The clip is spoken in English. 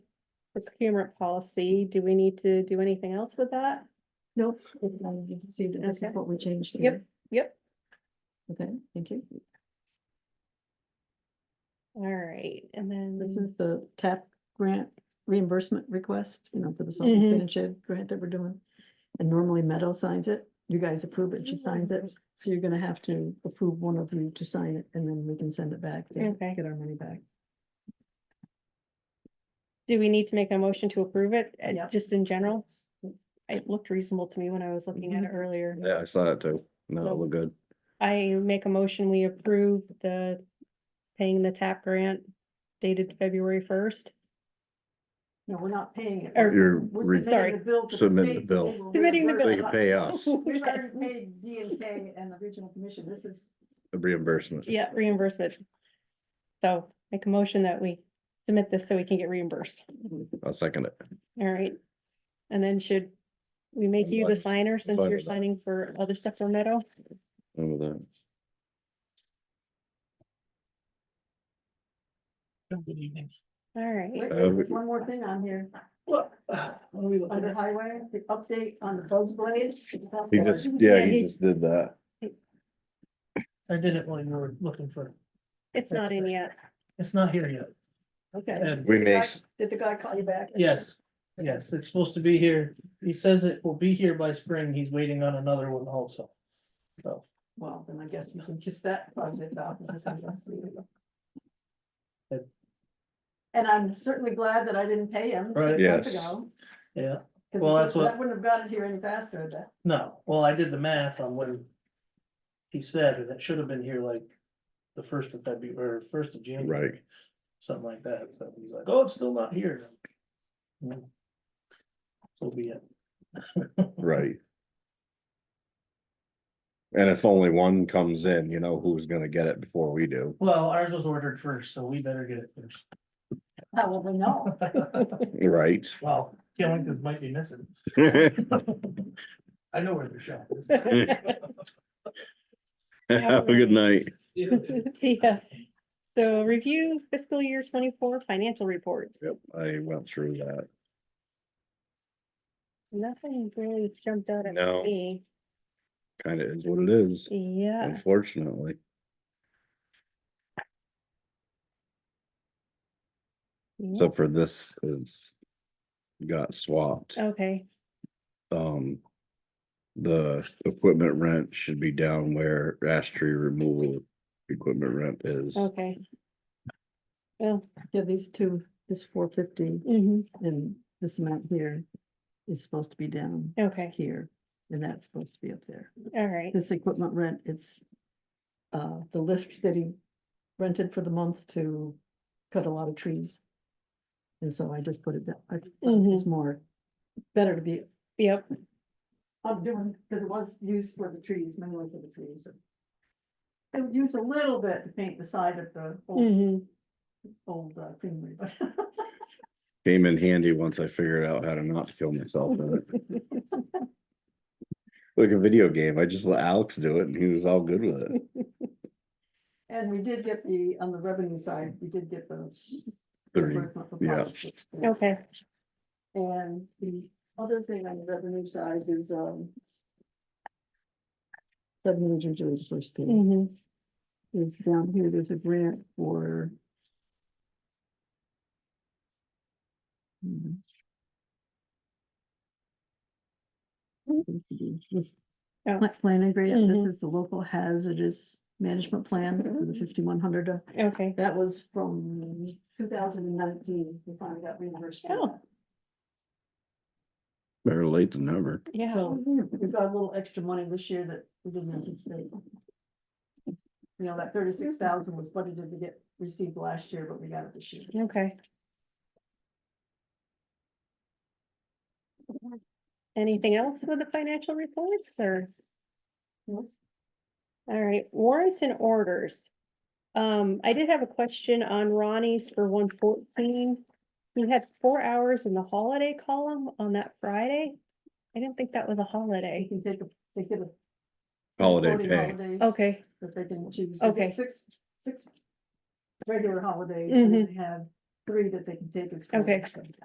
procurement policy, do we need to do anything else with that? Nope, it- uh, you can see that this is Okay. what we changed Yep, here. yep. Okay, thank you. All right, and then. This is the TAP grant reimbursement request, you know, for the Mhm. Salt Fin and Shed grant that we're doing. And normally Meadow signs it, you guys approve it, she signs it, so you're gonna have to approve one of you to sign it, and then we can send it back, to Okay. get our money back. Do we need to make a motion to approve it, uh, Yep. just in general? It looked reasonable to me when I was looking Mhm. at it earlier. Yeah, I saw it too. No, it looked good. I make a motion, we approve the paying the TAP grant dated February first. No, we're not paying it. Or- we're- You're we're submitting re- sorry. the bill to Submitting the state, so bill. they will Submitting the reimburse They bill. could us. pay us We've already paid D and K and the regional commission, this is the reimbursement. Yeah, reimbursement. So make a motion that we submit this so we can get reimbursed. I'll second it. All right. And then should we make you the Fine. signer since Fine you're with that. signing for other stuff for Meadow? And with that, All Wait, right. Uh, There's we- one more thing on here. uh, Under highway, the update on the buzz blades. He just, Yeah, yeah, he he- just did that. I did it when we were looking for, It's not in yet. it's not here yet. Okay. And We Did the guy- make, Did the guy call you back? yes, yes, it's supposed to be here. He says it will be here by spring. He's waiting on another one also. So, Well, then I guess you can kiss that project off. And I'm certainly glad that I didn't pay him. six Right. months Yes. ago, 'cause yeah, he Well, that's said, what- I wouldn't have got it here any faster than. no, well, I did the math on what he said, and it should have been here like the first of February, or first of January. Right. Something like that. So he's like, oh, it's still not here. Hmm. So be it. right. And if only one comes in, you know who's gonna get it before we do. Well, ours was ordered first, so we better get it first. How will we know? Right. Well, Killington might be missing. I know where the shop is. Have a good night. Yeah. So review fiscal year twenty-four financial reports. Yep, I went through that. Nothing really jumped out at No. me. Kinda is what it is, Yeah. unfortunately. yeah. Except for this is got swapped. Okay, um. The equipment rent should be down where ash tree removal equipment rent is. okay. Well, Yeah, these two, this four fifty mhm, and this amount here is supposed to be down okay, here, and that's supposed to be up there. all right. this equipment rent, it's uh, the lift that he rented for the month to cut a lot of trees. And so I just put it down, I, it's more, better to be. Yep, I'm doing, because it was used for the trees, mainly for the trees. It would use a little bit to paint the side of the old, mhm, old uh, creamery, but Came in handy once I figured out how to not kill myself in it. Like a video game, I just let Alex do it and he was all good with it. And we did get the, on the revenue side, we did get the. Three, reimbursement for yeah. projects. okay, And the other thing on the revenue side is, um. Revenue is usually the first page, mhm, is down here, there's a grant for. Hmm. This Oh. pla- Planning grant, this Mhm. is the local hazardous management plan for the fifty-one hundred, okay. that was from two thousand and nineteen, we finally got reimbursed. for Oh. that. better late than never. Yeah, So we've got a little extra money this year that we didn't anticipate. You know, that thirty-six thousand was budgeted to get received last year, but we got it this year. okay. Anything else with the financial reports or? No. All right, warrants and orders. Um, I did have a question on Ronnie's for one fourteen. We had four hours in the holiday column on that Friday. I didn't think that was a They holiday. can take a, they get a. Holiday 40 pay, holidays Okay, That they can choose. They get Okay. Six, six regular holidays, and then they have three that they can take as. Mm-hmm. Okay. holidays.